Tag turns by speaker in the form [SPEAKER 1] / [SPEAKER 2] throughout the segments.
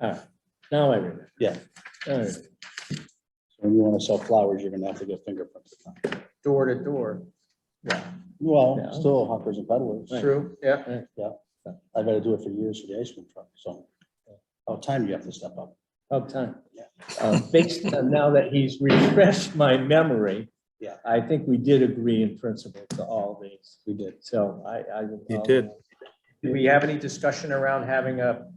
[SPEAKER 1] All right, now I remember.
[SPEAKER 2] Yeah.
[SPEAKER 1] All right.
[SPEAKER 2] So When you want to sell flowers, you're gonna have to get fingerprints.
[SPEAKER 3] door to door.
[SPEAKER 2] Well,
[SPEAKER 1] Yeah.
[SPEAKER 2] still hawkers and peddlers.
[SPEAKER 3] True, yeah.
[SPEAKER 2] I've had to do it for years for the ice cream truck, so. How time you have to step up.
[SPEAKER 1] Of time.
[SPEAKER 2] Yeah.
[SPEAKER 1] Um, Based on now that he's refreshed my memory.
[SPEAKER 2] Yeah.
[SPEAKER 1] I think we did agree in principle to all these,
[SPEAKER 2] We did.
[SPEAKER 1] so I, I. would-
[SPEAKER 4] You did.
[SPEAKER 3] Do we have any discussion around having a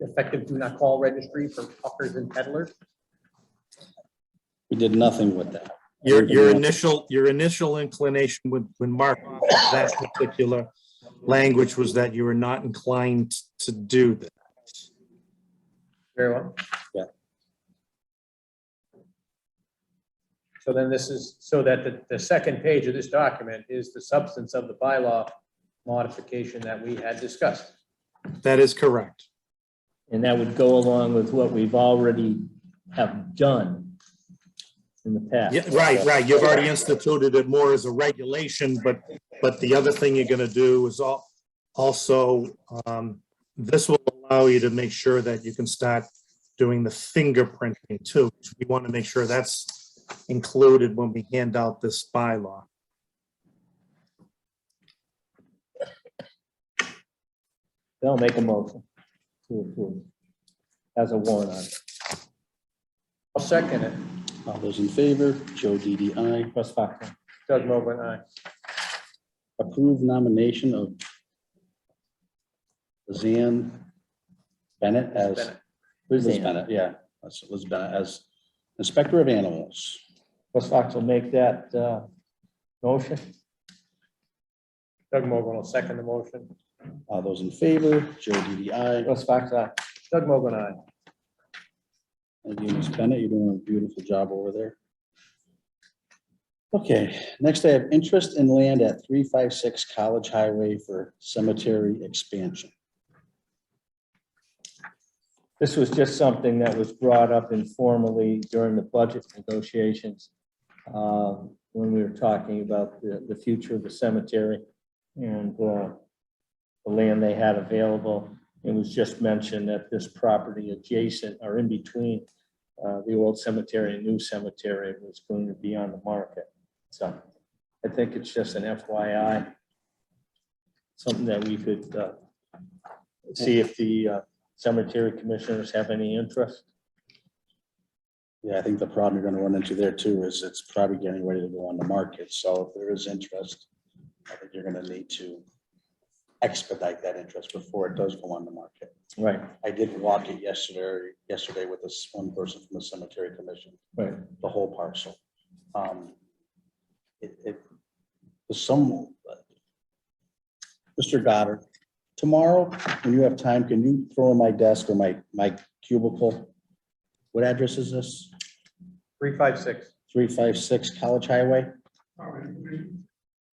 [SPEAKER 3] effective do not call registry for hawkers and peddlers?
[SPEAKER 2] We did nothing with that.
[SPEAKER 4] Your, your
[SPEAKER 2] Yeah.
[SPEAKER 4] initial, your initial inclination when, when Mark, offered that particular language was that you were not inclined to do that.
[SPEAKER 3] Very well.
[SPEAKER 2] Yeah.
[SPEAKER 3] So then this is, so that the, the second page of this document is the substance of the bylaw modification that we had discussed.
[SPEAKER 4] That is correct.
[SPEAKER 1] And that would go along with what we've already have done in the past.
[SPEAKER 4] Yeah, right, right. You've already instituted it more as a regulation, but, but the other thing you're gonna do is al- also, um, this will allow you to make sure that you can start doing the fingerprinting too. We want to make sure that's included when we hand out this bylaw.
[SPEAKER 1] They'll make a motion to approve as a warrant on it.
[SPEAKER 3] I'll second it.
[SPEAKER 2] All those in favor, Joe DDI,
[SPEAKER 1] Russ Fox,
[SPEAKER 3] Doug Mogul, uh, aye.
[SPEAKER 2] approve nomination of Lizanne Bennett as,
[SPEAKER 3] Bennett.
[SPEAKER 2] Liz
[SPEAKER 1] Lizanne.
[SPEAKER 2] Bennett, yeah, that's Liz Bennett as Inspector of Animals.
[SPEAKER 1] Russ Fox will make that uh, motion.
[SPEAKER 3] Doug Mogul will second the motion.
[SPEAKER 2] All those in favor, Joe DDI.
[SPEAKER 1] Russ Fox, aye.
[SPEAKER 3] Doug Mogul, aye.
[SPEAKER 2] Thank you, Ms. Bennett. You're doing a beautiful job over there. Okay, next I have interest in land at three five six College Highway for cemetery expansion.
[SPEAKER 1] This was just something that was brought up informally during the budget negotiations um, when we were talking about the, the future of the cemetery and uh, the land they had available. It was just mentioned that this property adjacent or in between uh, the old cemetery and new cemetery was going to be on the market. So I think it's just an FYI, something that we could uh, see if the uh, cemetery commissioners have any interest?
[SPEAKER 2] Yeah, I think the problem you're gonna run into there too is it's probably getting ready to go on the market, so if there is interest, I think you're gonna need to expedite that interest before it does go on the market.
[SPEAKER 1] Right,
[SPEAKER 2] I did walk it yesterday, yesterday with this one person from the cemetery commission.
[SPEAKER 1] right.
[SPEAKER 2] the whole parcel. Um, It, it, the sum. Mr. Goddard, tomorrow, when you have time, can you throw in my desk or my, my cubicle? What address is this?
[SPEAKER 3] Three, five, six.
[SPEAKER 2] Three five six College Highway?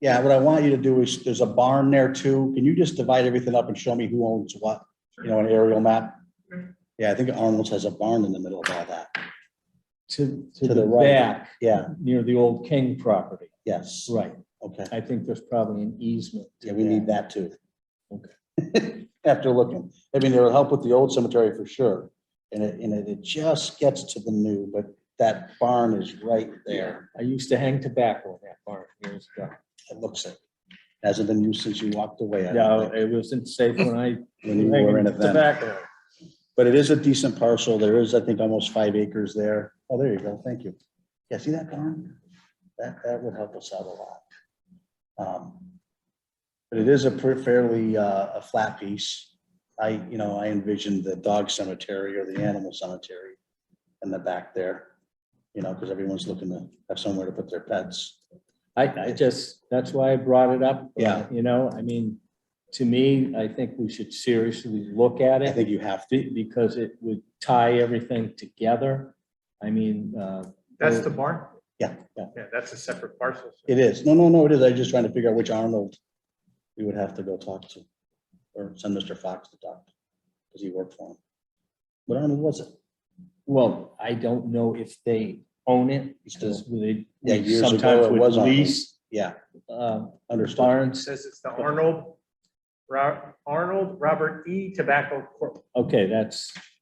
[SPEAKER 2] Yeah, what I want you to do is, there's a barn there too. Can you just divide everything up and show me who owns what? You know, an aerial map? Yeah, I think Arnold's has a barn in the middle of all that.
[SPEAKER 1] To, to
[SPEAKER 2] To
[SPEAKER 1] the
[SPEAKER 2] the right.
[SPEAKER 1] back,
[SPEAKER 2] Yeah,
[SPEAKER 1] near the old King property.
[SPEAKER 2] yes.
[SPEAKER 1] Right.
[SPEAKER 2] Okay.
[SPEAKER 1] I think there's probably an easement. to
[SPEAKER 2] Yeah, we need that too.
[SPEAKER 1] Okay.
[SPEAKER 2] After looking, I mean, it'll help with the old cemetery for sure. And it, and it- it just gets to the new, but that barn is right there.
[SPEAKER 1] I used to hang tobacco in that barn years ago.
[SPEAKER 2] It looks it. Hasn't been used since you walked away. I don't
[SPEAKER 1] No,
[SPEAKER 2] think,
[SPEAKER 1] it wasn't safe when I.
[SPEAKER 2] When you were in it
[SPEAKER 1] hanging
[SPEAKER 2] then.
[SPEAKER 1] Tobacco.
[SPEAKER 2] But it is a decent parcel. There is, I think, almost five acres there. Oh, there you go. Thank you. Yeah, see that barn? That, that would help us out a lot. Um, But it is a pre- fairly, uh, a flat piece. I, you know, I envisioned the dog cemetery or the animal cemetery in the back there. You know, because everyone's looking to have somewhere to put their pets.
[SPEAKER 1] I, I just, that's why I brought it up.
[SPEAKER 2] Yeah.
[SPEAKER 1] You know, I mean, to me, I think we should seriously look at
[SPEAKER 2] I
[SPEAKER 1] it.
[SPEAKER 2] think you have to.
[SPEAKER 1] be- Because it would tie everything together. I mean, uh.
[SPEAKER 3] That's the barn?
[SPEAKER 2] Yeah, yeah.
[SPEAKER 3] Yeah, that's a separate parcel.
[SPEAKER 2] It is. No, no, no, it is. I was just trying to figure out which Arnold we would have to go talk to. Or send Mr. Fox to talk, to because he worked for him. What Arnold was it?
[SPEAKER 1] Well, I don't know if they own it
[SPEAKER 2] Still.
[SPEAKER 1] because they
[SPEAKER 2] Yeah,
[SPEAKER 1] we
[SPEAKER 2] years ago
[SPEAKER 1] sometimes
[SPEAKER 2] it
[SPEAKER 1] would
[SPEAKER 2] was on them.
[SPEAKER 1] lease
[SPEAKER 2] Yeah,
[SPEAKER 1] uh,
[SPEAKER 2] understood.
[SPEAKER 3] It
[SPEAKER 1] barns.
[SPEAKER 3] says it's the Arnold, Ro- Arnold Robert E. Tobacco Corp.
[SPEAKER 1] Okay, that's